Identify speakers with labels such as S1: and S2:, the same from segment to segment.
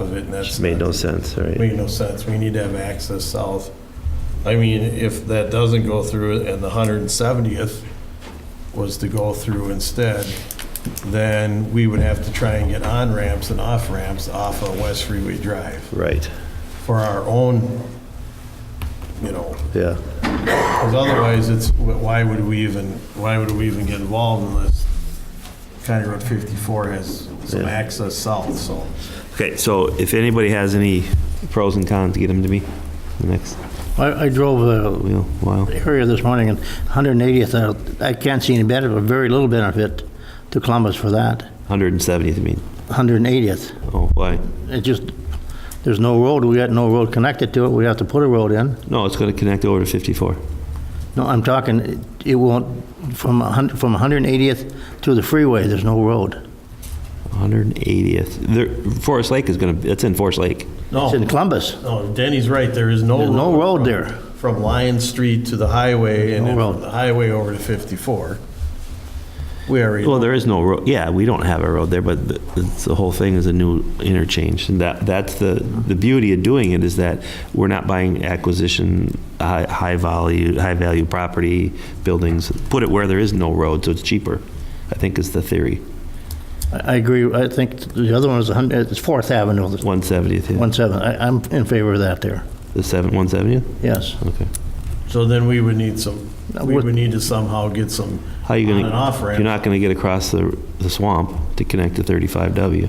S1: of it, and that's.
S2: Just made no sense, right?
S1: Made no sense. We need to have access south. I mean, if that doesn't go through and the 170th was to go through instead, then we would have to try and get on-ramps and off-ramps off of West Freeway Drive
S2: Right,
S1: for our own, you know,
S2: yeah,
S1: because otherwise, it's, why would we even, why would we even get involved unless County Road 54 has some
S2: Yeah.
S1: access south, so.
S2: okay, so if anybody has any pros and cons, get them to me, the next
S3: I, I drove
S2: wheel, while.
S3: the area this morning, and 180th, I- I can't see any benefit, but very little benefit to Columbus for that,
S2: 170th, I mean,
S3: 180th.
S2: oh, why?
S3: It just, there's no road, we got no road connected to it, we have to put a road in.
S2: No, it's gonna connect over to 54.
S3: No, I'm talking, it- it won't, from 100, from 180th to the freeway, there's no road.
S2: 180th, there, Forest Lake is gonna, it's in Forest Lake.
S3: It's in Columbus,
S1: No, Denny's Oh, right, there is no.
S3: There's no road
S1: from-
S3: there.
S1: From Lion Street to the highway and
S3: No
S1: then from
S3: road.
S1: the highway over to 54. We already,
S2: Well, there is no road, yeah, we don't have a road there, but the- it's- the whole thing is a new interchange. And that, that's the, the beauty of doing it is that we're not buying acquisition, high, high value, high value property, buildings. Put it where there is no road, so it's cheaper, I think is the theory.
S3: I I agree, I think the other one is 100, it's Fourth Avenue,
S2: 170th, yeah.
S3: 17, I, I'm in favor of that there,
S2: The seven, 170th?
S3: yes.
S2: Okay.
S1: so then we would need some,
S3: Now,
S1: we
S3: what-
S1: would need to somehow get some
S2: How
S1: on
S2: you
S1: and
S2: gonna?
S1: off
S2: You're
S1: ramp.
S2: not gonna get across the, the swamp to connect to 35W.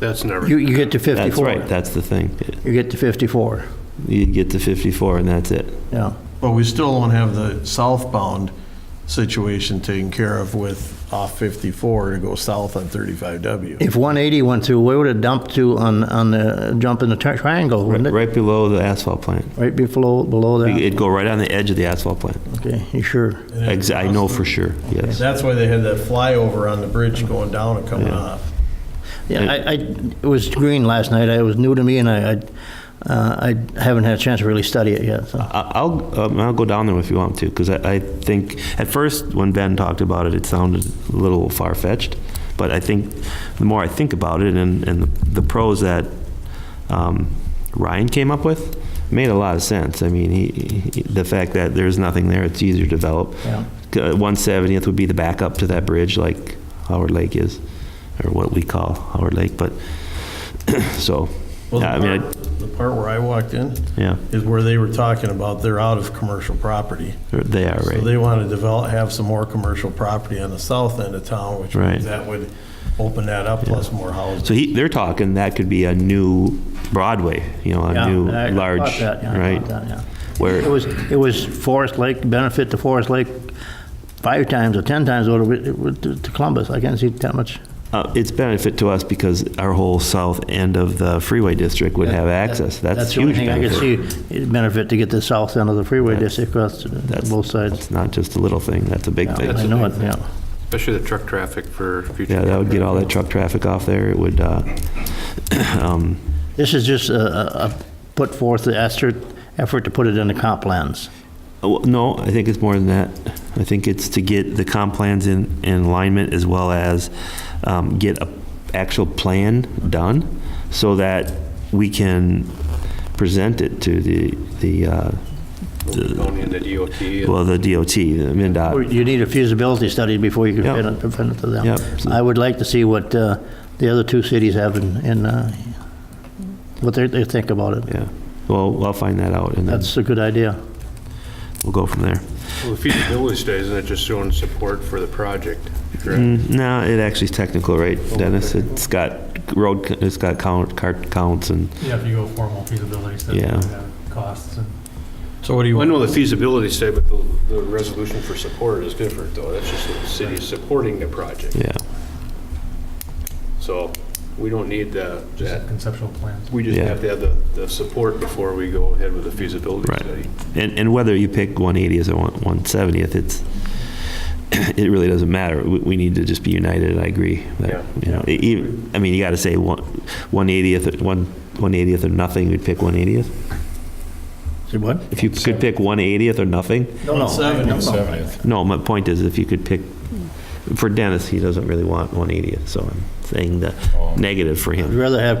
S4: That's never,
S3: You, you get to 54.
S2: That's right, that's the thing.
S3: You get to 54,
S2: You get to 54 and that's it.
S3: yeah.
S1: But we still don't have the southbound situation taken care of with off 54 to go south on 35W.
S3: If 180 went through, where would it dump to on, on the, jump in the tri- triangle, wouldn't it?
S2: Right below the asphalt plant.
S3: Right below, below that?
S2: It'd go right on the edge of the asphalt plant.
S3: Okay, you sure?
S2: Ex- I know for sure, yes.
S1: That's why they had that flyover on the bridge going down and coming
S2: Yeah.
S1: off.
S3: Yeah, I, I, it was green last night, it was new to me, and I, I uh, I haven't had a chance to really study it yet, so.
S2: I- I'll, um, I'll go down there if you want to, because I, I think, at first, when Ben talked about it, it sounded a little far-fetched, but I think, the more I think about it, and, and the pros that um, Ryan came up with, made a lot of sense. I mean, he, he- the fact that there's nothing there, it's easier to develop.
S3: Yeah.
S2: Uh, 170th would be the backup to that bridge, like Howard Lake is, or what we call Howard Lake, but, so,
S1: Well, the
S2: yeah, I mean, I-
S1: part- The part where I walked in
S2: yeah,
S1: is where they were talking about they're out of commercial property.
S2: they are,
S1: So
S2: right.
S1: they want to develop, have some more commercial property on the south end of town, which
S2: Right.
S1: means that would open that up, plus more houses.
S2: So he, they're talking that could be a new Broadway, you know, a
S3: Yeah,
S2: new
S3: I- I
S2: large,
S3: caught that, yeah, I
S2: right?
S3: caught that, yeah. It
S2: Where
S3: was, it was Forest Lake, benefit to Forest Lake five times or 10 times over to to Columbus, I can't see that much.
S2: uh, it's benefit to us because our whole south end of the freeway district would have access. That's
S3: the only
S2: huge
S3: thing I could
S2: benefit.
S3: see, it'd benefit to get the south end of the freeway district across
S2: That's-
S3: both sides.
S2: It's not just a little thing. That's a big
S3: Yeah,
S2: thing.
S3: I know it, yeah.
S4: especially the truck traffic for future.
S2: Yeah, that would get all that truck traffic off there. It would, uh, um,
S3: This is just a, a- a put forth the effort, effort to put it in the comp plans.
S2: Oh, No, I think it's more than that. I think it's to get the comp plans in, in alignment as well as um, get a actual plan done so that we can present it to the, the, uh,
S4: Going into DOT. and-
S2: well, the DOT, the
S3: Or
S2: MinDOT.
S3: You need a feasibility study before you can
S2: Yep.
S3: present it- present it to them.
S2: Yep.
S3: I would like to see what uh, the other two cities have in, in, uh, what they, they think about it.
S2: Yeah, well, I'll find that out and then
S3: That's a good idea.
S2: we'll go from there.
S4: Well, the feasibility study, isn't it just showing support for the project? correct?
S2: Mm, No, it actually is technical, right, Dennis? It's got road, c- it's got count, cart counts and,
S5: Yeah, if you go formal feasibility study, you
S2: Yeah.
S5: have costs and
S1: So what do you
S4: Well, I
S1: want?
S4: know the feasibility study, but the, the resolution for support is different, though. That's just the city supporting the project.
S2: yeah,
S4: So we don't need the,
S5: just
S4: that.
S5: conceptual plans.
S4: We just
S2: Yeah.
S4: have to have the, the support before we go ahead with the feasibility
S2: Right.
S4: study.
S2: And, and whether you pick 180th or 170th, it's, it really doesn't matter. We, we need to just be united, I agree.
S4: Yeah.
S2: That, you know, e- even, I mean, you got to say one- 180th, or one- 180th or nothing, we'd pick 180th.
S3: See what?
S2: If you could pick 180th or nothing,
S3: No, no.
S1: 70th.
S2: no, my point is if you could pick, for Dennis, he doesn't really want 180th, so I'm
S6: thing, the negative for him.
S2: I'd rather have